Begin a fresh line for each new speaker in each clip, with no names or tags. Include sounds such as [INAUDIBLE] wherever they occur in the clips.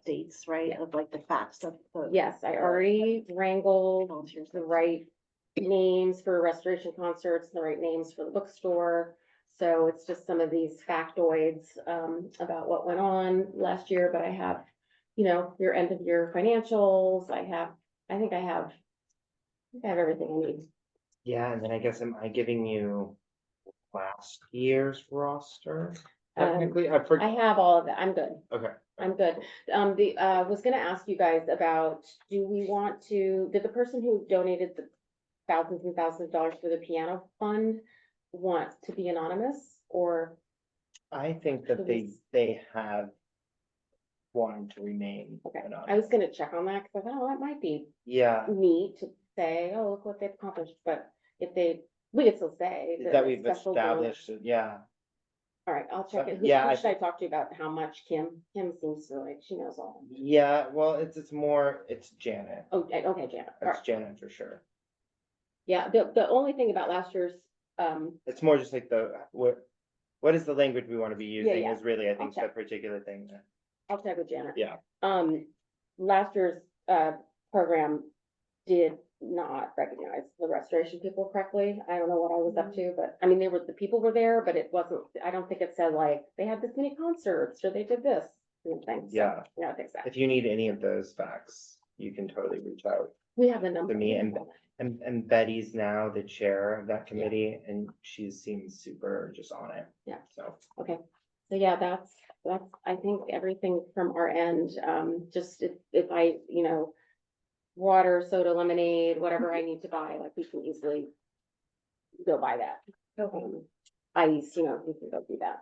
updates, right, of like the facts of. the-
Yes, I already wrangled
Volunteers.
the right names for restoration concerts, the right names for the bookstore. So it's just some of these factoids um about what went on last year, but I have, you know, your end of year financials. I have, I think I have. I think I have everything I need.
Yeah, and then I guess am I giving you last year's roster?
Um,
Technically, I
I
forgot.
have all of that. I'm good.
Okay.
I'm good. Um, the, uh, was gonna ask you guys about, do we want to, did the person who donated the thousands and thousands of dollars for the piano fund want to be anonymous or?
I think that they,
Please.
they have wanted to remain.
Okay, I was
anonymous.
gonna check on that, cause I thought, oh, that might be
Yeah,
neat to say, oh, look what they've accomplished, but if they, we could still say.
that
it's
we've
special donor.
established, it, yeah.
All right, I'll check it. Who-
Yeah,
Who
I
should I talk to about how much Kim? Kim seems to like, she knows all.
Yeah, well, it's, it's more, it's Janet.
Oh, eh, okay, Janet. All
It's
right.
Janet for sure.
Yeah, the, the only thing about last year's, um,
It's more just like the, what, what is the language we want to be using
yeah.
is really, I think, the
check.
particular thing. that-
I'll check with Janet.
Yeah.
Um, last year's, uh, program did not recognize the restoration people correctly. I don't know what I was up to, but, I mean, they were, the people were there, but it wasn't, I don't think it said like, they had this many concerts, or they did this, and things. So,
Yeah.
No, it takes that.
If you need any of those facts, you can totally reach out.
We have the number.
To me, and- And, and Betty's now the chair of that committee and she seems super just on it.
Yeah.
So,
So yeah, that's, that's, I think everything from our end, um, just if, if I, you know, water, soda, lemonade, whatever I need to buy, like we can easily go buy that.
Okay,
um, ice, you know, we can go do that.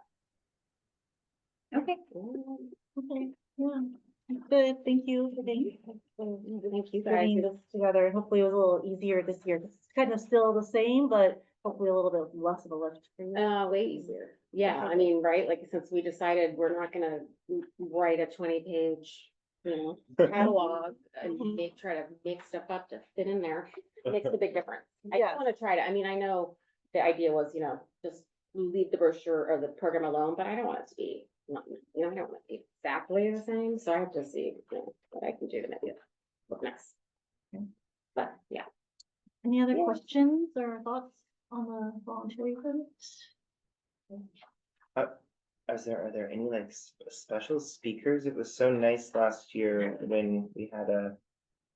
okay,
Mm,
okay, yeah. Good, thank you for being,
Thank you
for
guys.
bringing this together. Hopefully it was a little easier this year. It's kind of still the same, but hopefully a little bit less of a lift for you.
Uh, way easier. Yeah, I mean, right, like since we decided we're not gonna w- write a twenty page, you know, catalog and
Mhm.
make, try to make stuff up to fit in there, makes a big difference. I
Yes.
just wanna try to, I mean, I know the idea was, you know, just leave the brochure or the program alone, but I don't want it to be not, you know, I don't want it to be exactly the same, so I have to see you know, what I can do to make it look nice.
Okay.
But, yeah.
Any other
Yeah.
questions or thoughts on the voluntary event?
is uh, there, are there any like s- special speakers? It was so nice last year when we had a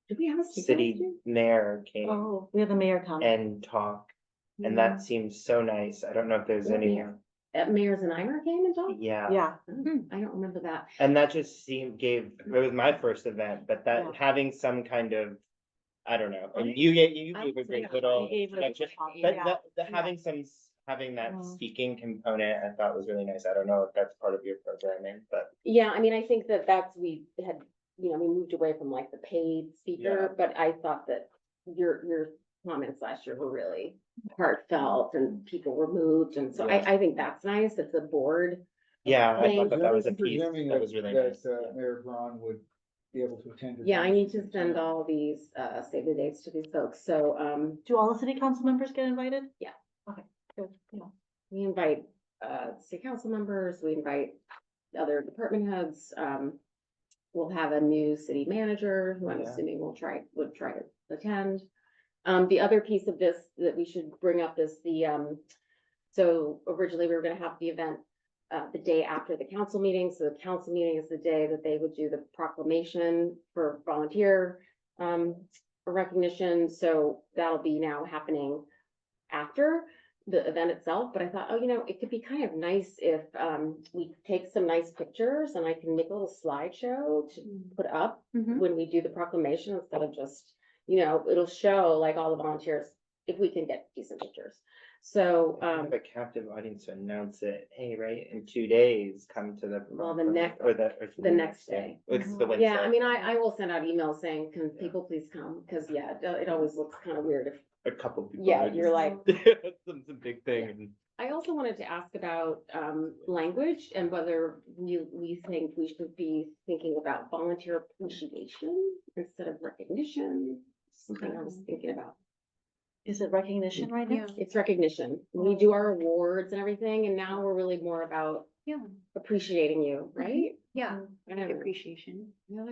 Do we have a speaker last
city
year?
mayor came
Oh, we have the mayor comment.
and talk. And that seemed so nice. I don't know if there's
Yeah,
any,
mayor. At Mayor's and Imer came and talked?
yeah.
Yeah,
Oh, I don't remember that.
And that just seemed, gave, it was my first event, but
Yeah.
that having some kind of, I don't know,
Right.
and you, get- you
I
gave a
would say
great
I
little.
gave it a
introduction,
good
But
talk,
that, the
yeah.
having some, s- having that
Mm-hmm.
Mhm.
speaking component, I thought was really nice. I don't know if that's part of your programming, but
Yeah, I mean, I think that that's, we had, you know, we moved away from like the paid speaker,
Yeah.
but I thought that your, your comments last year were really heartfelt and people were moved. And so
Yeah.
I, I think that's nice that the board,
yeah, I
Thank
thought that that was a piece
Presuming
that was really
that,
nice.
uh, Mayor Braun would be able to attend. as
yeah, I
well.
need to send all these, uh, save the dates to these folks. So, um,
do all the city council members get invited?
Yeah.
Okay, good, yeah.
we invite, uh, city council members, we invite other department heads, um. We'll have a new city manager, who I'm
Yeah.
assuming will try, would try to attend. Um, the other piece of this that we should bring up is the, um, so originally we were gonna have the event. Uh, the day after the council meeting, so the council meeting is the day that they would do the proclamation for volunteer. Um, recognition, so that'll be now happening after the event itself, but I thought, oh, you know, it could be kind of nice if um we take some nice pictures and I can make a little slideshow to put up
Mhm.
when we do the proclamation instead of just, you know, it'll show like all the volunteers if we can get decent pictures. So
I
um,
have a captive audience to announce it, hey, right, in two days, come to the.
Well, the next-
Or the. or
the next day. Mm-hmm.
It's the Wednesday.
yeah, I mean, I I will send out emails saying, can people please come? Cause yeah, it- it always looks kind of weird if,
A couple people.
yeah,
are
you're
just-
like,
[LAUGHS] It's a big thing. and-
I also wanted to ask about um language and whether we we think we should be thinking about volunteer appreciation instead of recognition. Something I was thinking about.
Is it recognition right now?
It's recognition. We do our awards and everything, and now we're really more about
Yeah,
appreciating you, right?
yeah,
I don't know.
appreciation.